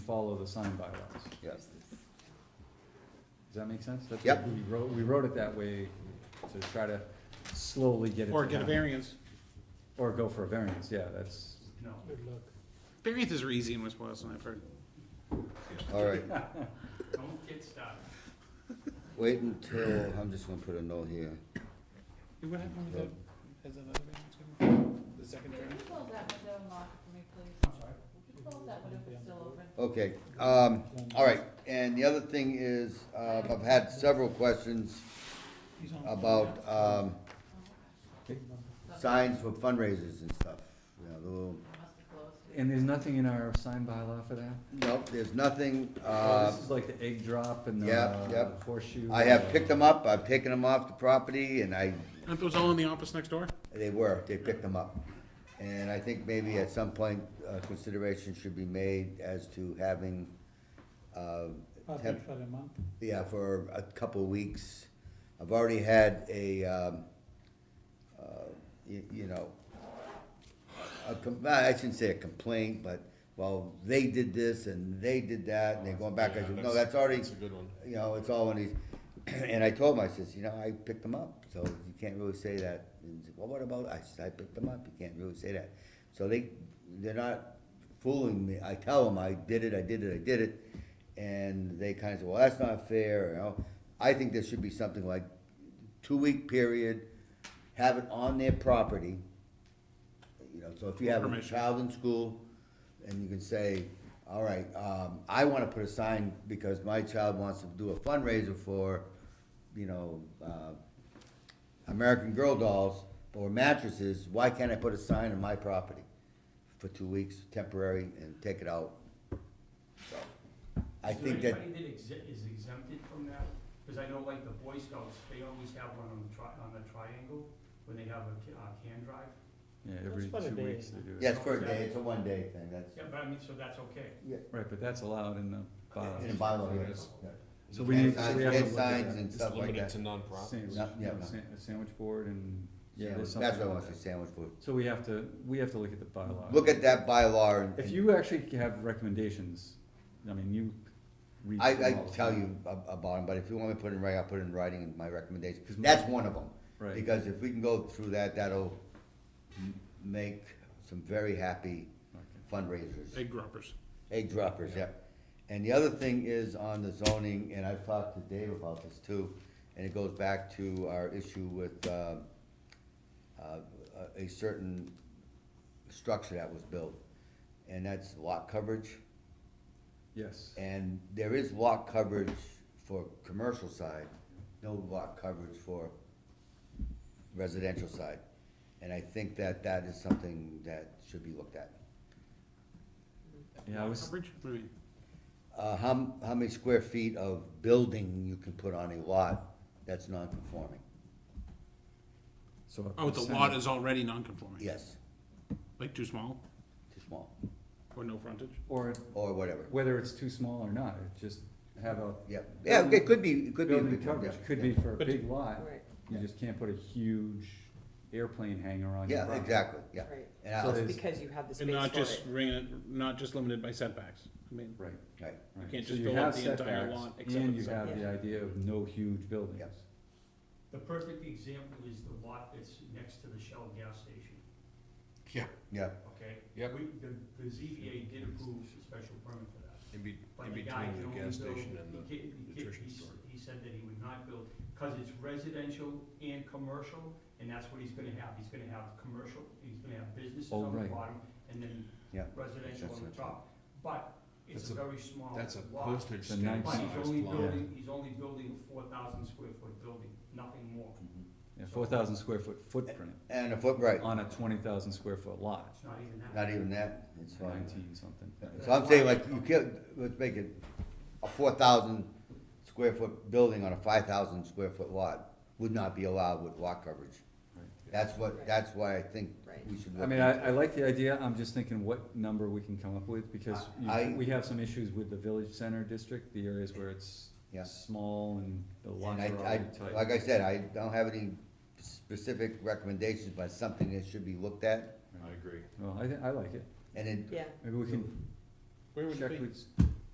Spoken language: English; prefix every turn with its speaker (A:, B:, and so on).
A: follow the sign bylaws.
B: Yeah.
A: Does that make sense? That's
B: Yep.
A: what We wrote, we wrote it that way to try to slowly get it.
C: Or
A: to
C: get a
A: happen.
C: variance.
A: Or go for a variance, yeah, that's,
C: Variances are easy in West Boylston, I've heard.
B: All right,
D: Don't get started.
B: wait until, I'm just gonna put a note here.
C: What happened
B: with
C: has another variance? The second
E: Could you close that window and lock it for me, please? I'm sorry? Could you close that window if it's still open?
B: Okay, um, all right, and the other thing is, uh, I've had several questions about, um, signs for fundraisers and stuff, you know, the little,
E: It must have closed.
A: and there's nothing in our sign bylaw for that?
B: no, there's nothing,
A: Oh,
B: uh,
A: This is like the egg drop and
B: yeah,
A: the
B: yep.
A: horseshoe.
B: I have
A: uh,
B: picked them up, I've taken them off the property, and I,
C: Aren't those all in the office next door?
B: they were, they picked them up. And I think maybe at some point, uh, consideration should be made as to having, uh, temp-
F: for a month.
B: Yeah, for a couple of weeks. I've already had a, um, uh, you, you know, a com- I shouldn't say a complaint, but, well, they did this and they did that, and they're going back, I said, no, that's already,
G: That's a good one.
B: you know, it's all in these. And I told him, I says, you know, I picked them up, so you can't really say that. And he said, well, what about, I said, I picked them up, you can't really say that. So they, they're not fooling me. I tell them, I did it, I did it, I did it. And they kinda say, well, that's not fair, you know. I think there should be something like two-week period, have it on their property. You know, so if you have a
C: Permission.
B: child in school, and you can say, all right, um, I wanna put a sign because my child wants to do a fundraiser for, you know, uh, American Girl dolls or mattresses, why can't I put a sign on my property for two weeks, temporary, and take it out? So, I think
D: Is
B: that,
D: there anybody that exe- is exempted from that? Because I know like the Boy Scouts, they always have one on the tri, on the triangle when they have a ca- uh, can drive.
A: Yeah, every
F: That's what
A: two
F: it
A: weeks
F: is.
A: they do it.
B: yes, for a day, it's a one-day thing,
D: Yeah,
B: that's,
D: but I mean, so that's okay.
A: Right, but that's allowed in the bylaws.
B: in a bylaw,
A: So
B: yes.
A: that's- So we need, so we have to
B: And
A: look at
B: signs
A: that.
B: and
G: It's
B: stuff like
G: limited
B: that.
G: to nonprofit.
A: Sandwich,
B: Yeah, yeah,
A: yeah,
B: no.
A: sa- sandwich board and, yeah, there's
B: Sandwich-
A: something.
B: That's what I
A: about
B: want to say,
A: that.
B: sandwich board.
A: So we have to, we have to look at the bylaw.
B: Look at that bylaw and.
A: If you actually have recommendations, I mean, you read.
B: I,
A: through
B: I
A: all the
B: tell
A: time.
B: you ab- about them, but if you want me to put it in writing, I'll put it in writing in my recommendation.
A: 'Cause
B: That's one of them.
A: Right.
B: Because if we can go through that, that'll m- make some very happy
A: Okay.
B: fundraisers,
C: Egg droppers.
B: egg droppers, yep. And the other thing is on the zoning, and I've talked to Dave about this too, and it goes back to our issue with, uh, uh, a certain structure that was built. And that's lot coverage.
A: Yes,
B: And there is lot coverage for commercial side, no lot coverage for residential side. And I think that that is something that should be looked at.
A: yeah, I was,
C: Coverage? What do you mean?
B: Uh, how, m- how many square feet of building you can put on a lot that's non-conforming?
A: so. a
C: Oh, the lot
A: percentage-
C: is already non-conforming?
B: Yes,
C: Like too small
B: too small,
C: or no frontage?
A: Or
B: or whatever.
A: whether it's too small or not, it just have a
B: Yeah, yeah, it could be, it could be. a
A: building
B: big one,
A: coverage,
B: yeah,
A: could
B: yeah.
A: be for a
C: But-
A: big lot, you
B: Yeah.
A: just can't put a huge airplane hangar on your
B: Yeah,
A: property.
B: exactly, yeah.
H: Right,
B: And
A: So
B: I'll,
A: there's-
H: because you have the space
C: And not
H: for
C: just
H: it.
C: ring it, not just limited by setbacks. I mean,
A: Right,
B: right,
A: right.
C: can't
A: So
C: just
A: you
C: fill
A: have
C: up the entire
A: setbacks,
C: lot except for
A: And
C: the
A: you have
H: side.
A: the idea of no huge buildings.
B: Yep.
D: The perfect example is the lot that's next to the Shell gas station,
G: Yeah,
B: yeah,
D: okay?
G: Yep.
D: We, the, the ZBA did approve a special permit for that.
G: in be,
D: But
G: in
D: the guy
G: between
D: can
G: the
D: only
G: gas
D: build-
G: station and
D: he
G: the.
D: ca- he ca-
G: nutrition
D: he's-
G: store.
D: He said that he would not build, cause it's residential and commercial, and that's what he's gonna have, he's gonna have commercial, he's gonna have businesses
A: Oh,
D: on the
A: right.
D: bottom, and then
B: Yeah,
D: residential
B: that's
D: on the
B: what-
D: top. But it's
G: That's a-
D: a very small
G: That's a
D: lot,
G: postage
A: It's a
G: stamp
D: but he's
G: sized
D: only
G: lot.
D: building, he's only building a four thousand square foot building, nothing more,
A: Yeah, four thousand square foot footprint
B: and a foot, right,
A: on a twenty thousand square foot lot,
D: it's not even that.
B: not even that, it's fine.
A: nineteen something.
B: So I'm saying like, you can't, let's make it a four thousand square foot building on a five thousand square foot lot would not be allowed with lot coverage.
A: Right.
B: That's what, that's why I think
H: Right.
B: we should.
A: I
B: look
A: mean,
B: into
A: I, I like the idea, I'm just thinking what number we can come up with, because you-
B: I-
A: we have some issues with the village center district, the areas where it's
B: Yeah.
A: small and the
B: it. And
A: lots are
B: I,
A: already
B: I,
A: tight.
B: like I said, I don't have any specific recommendations, but something that should be looked at.
G: I agree.
A: Well, I, thi- I like it,
B: And it,
H: Yeah,
A: maybe we can
C: Where would
A: check
C: it be?
A: with